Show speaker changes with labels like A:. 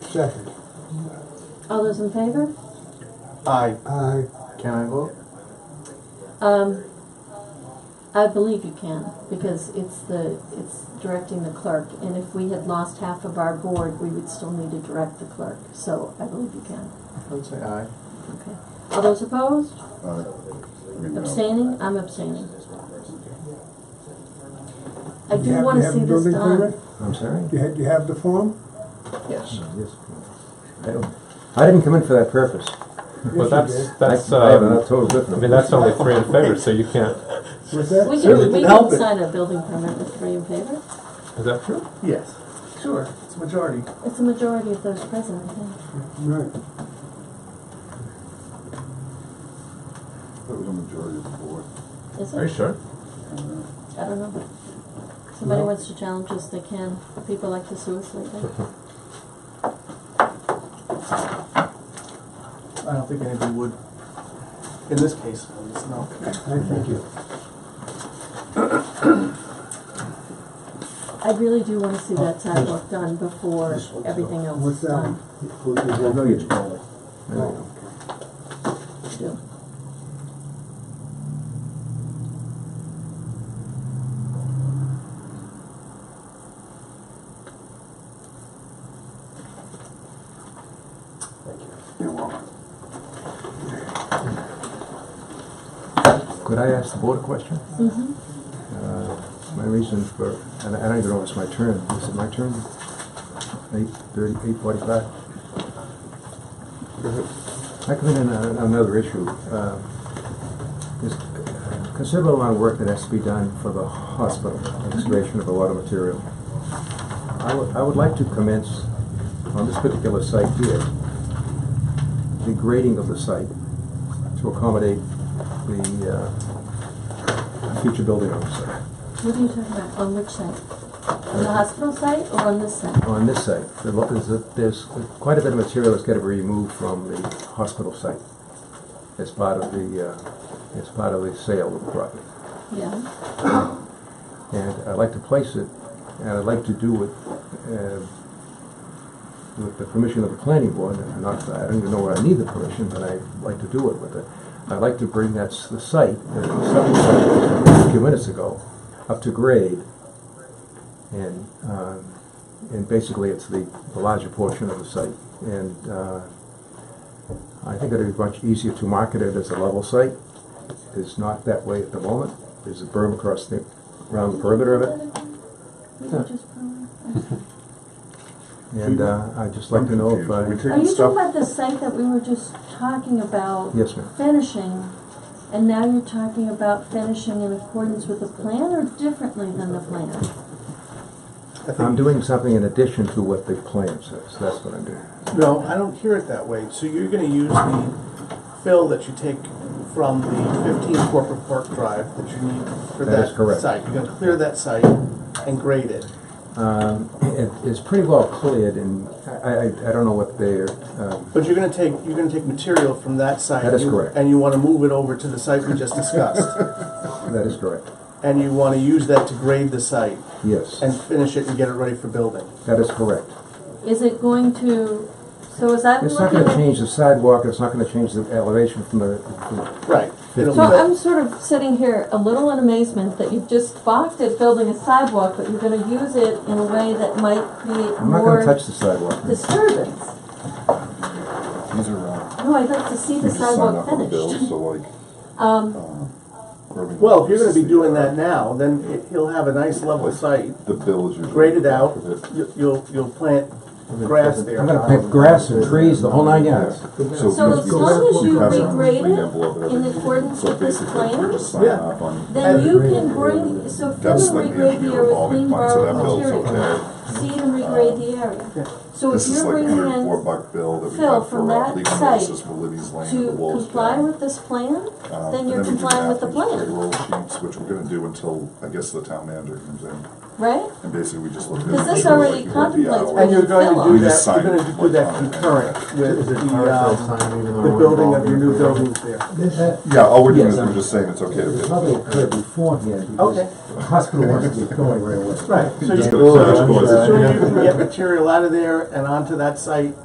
A: Second.
B: All those in favor?
C: Aye.
A: Aye.
C: Can I vote?
B: Um, I believe you can, because it's the, it's directing the clerk, and if we had lost half of our board, we would still need to direct the clerk, so I believe you can,
C: I'd say aye.
B: okay. All those opposed?
D: Uh,
E: Aye. I mean, no.
B: Abstaining? I'm abstaining. I
A: You
B: do
A: have- you
B: wanna
A: have
B: see
A: the
B: this
A: building
B: done.
A: permit?
F: I'm sorry?
A: You had, you have the form?
C: Yes.
F: Yes. I don't- I didn't come in for that purpose.
A: Yes, you
D: But that's,
A: did.
D: that's,
F: I- I have a
D: um,
F: total different.
D: I mean, that's only three in favor, so you can't,
A: Was that?
B: We
F: Really
B: can, we
F: didn't help
B: can
F: it.
B: sign a building permit with three in favor,
D: is that true?
C: Yes. Sure. It's majority.
B: it's a majority of those present, I think.
A: Right.
E: That was a majority of the board.
B: Is
D: Are you
B: it?
D: sure?
B: I don't know. Somebody wants to challenge us, they can. People like to sue us lately.
C: I don't think anybody would. In this case, it's no.
A: I thank you.
B: I really do wanna see that sidewalk done before everything else
A: What's
B: is
A: that?
B: done.
A: Who did that?
F: No, you didn't.
A: Oh, okay.
B: I do.
E: You're welcome.
F: Could I ask the board a question?
B: Mhm.
F: Uh, My reason for, and I I don't even know if it's my turn, is it my turn? Eight thirty, eight forty-five? I come in on a- on another issue. Uh, There's a considerable amount of work that has to be done for the hospital, excavation of a lot of material. I would, I would like to commence on this particular site here, the grading of the site to accommodate the uh, future building on the site.
B: What are you talking about? On which site? On the hospital site or on this site?
F: on this site, there lo- there's, a- there's quite a bit of material that's gotta be removed from the hospital site as part of the, uh, as part of the sale of the property.
B: Yeah.
F: And I'd like to place it, and I'd like to do it, uh, with the permission of the planning board, and not, I don't even know where I need the permission, but I'd like to do it with it. I'd like to bring that, s- the site, that was subdivided a few minutes ago, up to grade. And, um, and basically it's the, the larger portion of the site. And, uh, I think it'd be much easier to market it as a level site. It's not that way at the moment. There's a berm across the, around the perimeter of it.
B: We can just put it.
F: And, uh, I'd just like to know if
E: We
B: Are
F: I,
E: take the
B: you talking
E: stuff,
B: about the site that we were just talking about?
F: yes, ma'am.
B: Finishing, and now you're talking about finishing in accordance with the plan or differently than the plan?
F: I'm doing something in addition to what the plan says. That's what I'm doing.
C: No, I don't hear it that way. So you're gonna use the fill that you take from the fifteen corporate park drive that you need for
F: That is
C: that
F: correct.
C: site. You're gonna clear that site and grade it.
F: Um, it, it's pretty well cleared and I, I, I don't know what they're, um,
C: But you're gonna take, you're gonna take material from that site.
F: That is
C: you-
F: correct.
C: And you wanna move it over to the site we just discussed.
F: that is correct.
C: And you wanna use that to grade the site
F: Yes,
C: and finish it and get it ready for building.
F: that is correct.
B: Is it going to, so as I'm
F: It's not
B: looking
F: gonna
B: at,
F: change the sidewalk, it's not gonna change the elevation from the, the-
C: Right. It'll
B: so
C: fill-
B: I'm sort of sitting here a little in amazement that you've just balked at building a sidewalk, but you're gonna use it in a way that might create
F: I'm not gonna
B: more
F: touch the sidewalk.
B: disturbance.
E: these are, uh,
B: No, I'd like to see
E: you
B: the
E: just sign
B: sidewalk
E: up on bills,
B: finished.
E: so like.
B: Um,
E: Um,
C: Well, if you're gonna be doing that now, then it- he'll have a nice level site,
E: The bill is usually.
C: graded out,
E: Is it-
C: You- you'll, you'll plant grass there.
F: I'm gonna plant grass and trees, the whole nine yards.
B: So
E: because
B: as
E: we
B: long
E: just-
B: as
E: we
B: you
E: have a
B: regrade
E: green
B: it
E: envelope and
B: in
E: everything.
B: accordance
E: So
B: with this
E: basically, we
B: plan,
E: just sign
C: Yeah.
E: up on-
B: then you can bring, so fill
E: That's
B: and
E: the
B: regrade the
E: engineer
B: area with
E: revolving
B: clean
E: fund, so that
B: borrowed
E: bill's
B: material.
E: okay. Uh,
B: Seed and regrade the area. So if
E: This is
B: you're
E: like a
B: bringing
E: hundred and four
B: in
E: buck bill that we
B: Phil,
E: had
B: from
E: for uh,
B: that
E: legal
B: site
E: notices for Libby's Lane and the
B: to
E: Wolves.
B: comply
E: Down.
B: with this plan,
E: Uh,
B: then
E: and
B: you're
E: we do
B: complying with the
E: bathrooms,
B: plan,
E: Payroll sheets, which we're gonna do until, I guess, the town manager comes in,
B: right?
E: and basically we just look at.
B: Because
E: it,
B: this
E: like,
B: already
E: what the
B: contemplates
E: hours-
B: what
C: And you're
B: you
C: going
B: fill
C: to do
E: We
B: on.
C: that,
E: just
C: you're
E: signed
C: gonna
E: it.
C: do that concurrent with the, um, the building of your new buildings there.
E: Yeah, all we're doing
F: Yes,
E: is we're
F: I'm-
E: just saying it's okay to.
F: There's
E: pay.
F: nothing occurred beforehand because
C: Okay.
F: the hospital wants to get going right away.
C: Right, so you,
E: Just
C: so
E: go to the
C: you
E: board.
C: so you can get material out of there and onto that site